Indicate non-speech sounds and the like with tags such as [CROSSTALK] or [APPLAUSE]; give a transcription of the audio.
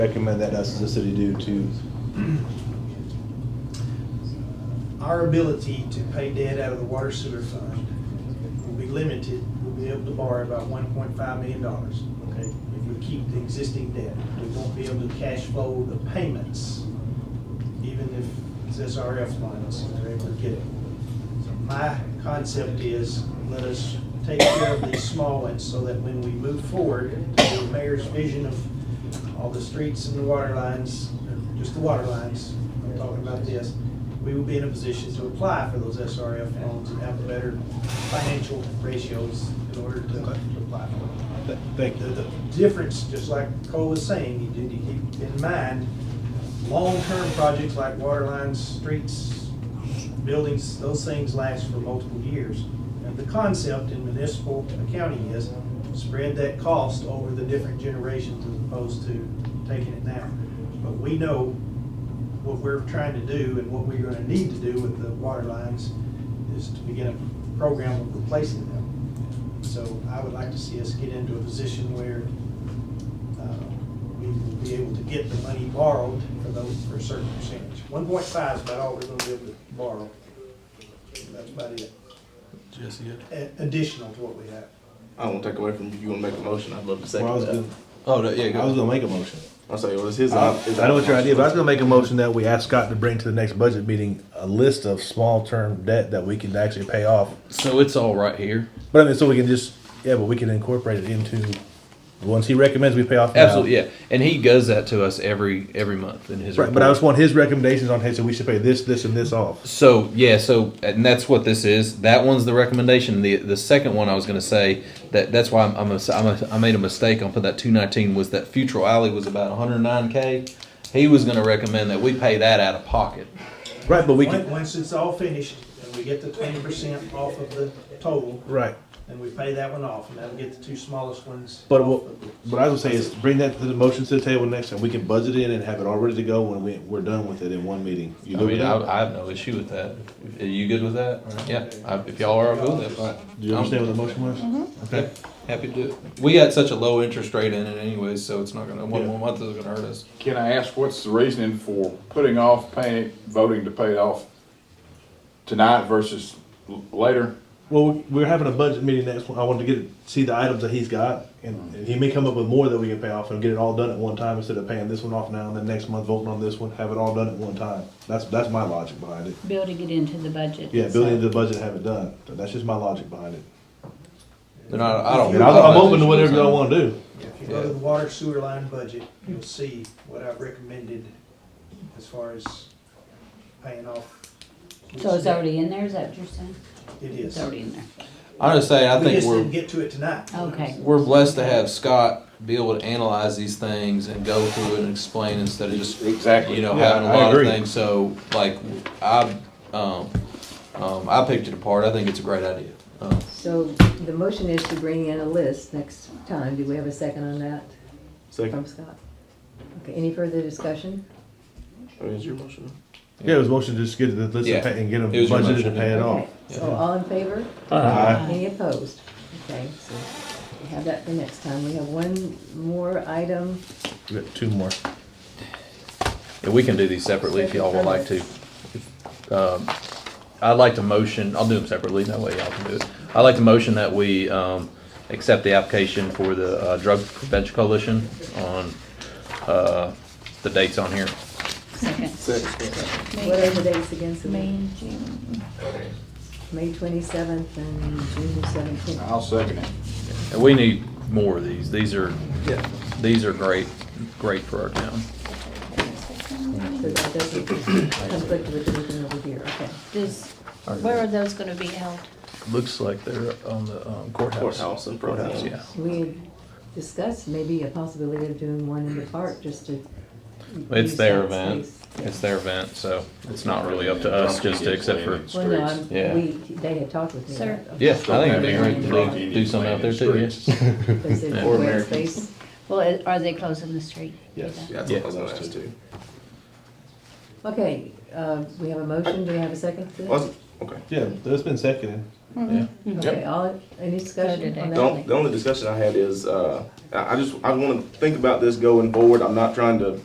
recommend that us as a city do to, Our ability to pay debt out of the water sewer fund will be limited. We'll be able to borrow about one point five million dollars, okay, if we keep the existing debt. We won't be able to cash flow the payments, even if it's SRF lines, if they're able to get it. So My concept is, let us take care of these small ones so that when we move forward, to the mayor's vision of all the streets and the water lines, or just the water lines, I'm talking about this, we will be in a position to apply for those SRF loans and have better financial ratios in order to to apply for them. th- thank The, you. the difference, just like Cole was saying, you do need to keep in mind, long-term projects like water lines, streets, buildings, those things last for multiple years. And the concept in municipal accounting is spread that cost over the different generations as opposed to taking it now. But we know what we're trying to do and what we're gonna need to do with the water lines is to begin a program of replacing them. So I would like to see us get into a position where uh, we will be able to get the money borrowed for those, for a certain percentage. One point five is about all we're gonna be able to borrow. That's about it, Jesse, it- A- additional to what we have. I don't take away from you. You want to make a motion? I'd love to second Well, I was that. gonna, oh, that- I yeah, was go. ahead. gonna make a motion. I'll say, well, it's his. I it's I know what your idea, option. is, but I was gonna make a motion that we ask Scott to bring to the next budget meeting a list of small-term debt that we can actually pay off. So it's all right here. But I mean, so we can just, yeah, but we can incorporate it into the ones he recommends we pay off now. Absolutely, yeah. And he does that to us every every month in his Right, but I report. just want his recommendations on, hey, so we should pay this, this, and this off. So yeah, so and that's what this is. That one's the recommendation. The the second one I was going to say that that's why I'm, I'm, a, I'm a, I made a mistake on put that 219 was that Futural Alley was about 109k. He was going to recommend that we pay that out of pocket. Right, but we Once- can, Once it's all finished and we get the twenty percent off of the total, right. then we pay that one off and that'll get the two smallest ones. But off what, of it. what I was gonna say is bring that to the motion to the table next time. We can budget it in and have it all ready to go when we, we're done with it in one meeting. You I good with mean, I, that? I have no issue with that. Are you good with that? Yeah. I, if y'all are, I'll go with it. Fine. Do you understand what the motion was? Okay. Happy to do it. We got such a low interest rate in it anyway, so it's not gonna, one Yeah. more month isn't gonna hurt us. Can I ask what's the reasoning for putting off paying, voting to pay it off tonight versus l- later? Well, we're having a budget meeting next, I wanted to get, see the items that he's got, and Mm-hmm. and he may come up with more that we can pay off and get it all done at one time instead of paying this one off now and then next month voting on this one, have it all done at one time. That's, that's my logic behind it. building it into the budget. Yeah, build it into the budget and have it done. That's just my logic behind it. And I, I don't. And I'm, I'm open to whatever y'all wanna do. If you go to the water sewer line budget, you'll see what I've recommended as far as paying off. So it's already in there, is that what you're saying? It It's is. already in there. I'm just saying, I We think just didn't we're, get to it tonight. Okay. we're blessed to have Scott be able to analyze these things and go through it and explain instead of just, Exactly. you know, Yeah, having a I lot of agree. things. So like, I, um, um, I picked it apart. I think it's a great idea. Um, So the motion is to bring in a list next time. Do we have a second on that Second. from Scott? Okay, any further discussion? I mean, Oh, it's your motion. Yeah, it was motion to just get the list Yeah. and pay- and get them It was your budgeted to motion. pay it off. Okay, so all in favor? Aye. Any opposed? Okay, so we have that for next time. We have one more item. We got two more. And we can do these separately if y'all would like to. Um, I'd like to motion, I'll do them separately, that way y'all can do it. I'd like to motion that we um, accept the application for the uh, Drug Prevention Coalition on uh, the dates on here. Second. What are the dates again? May Selena? and June. May twenty-seventh and June seventeenth. I'll second it. And we need more of these. These are, these are great, great for our town. So that doesn't conflict with anything over here, okay. Does, where are those gonna be held? Looks like they're on the um, courthouse. Courthouse and Courthouse, courthouse. yeah. We had discussed maybe a possibility of doing one in the park just to. It's use their that event. space. It's their event, so it's not really up to us just to accept for. Well, no, I'm, Yeah. we, they had talked with me. Sir. about- Yeah, I think it'd be great Drug to do something out there too, yes. They said Yeah. Or square Americans. space. Well, are they closing the street? Yes. Yeah, that's Yeah. what I was gonna ask too. Okay, uh, we have a motion, do we have a second? to this? Was it? Okay. [LAUGHS] Yeah, that's been seconded. Mm-hmm. Yeah. Okay, all, any discussion on that? The on- the only discussion I had is, uh, I I just, I want to think about this going forward. I'm not trying to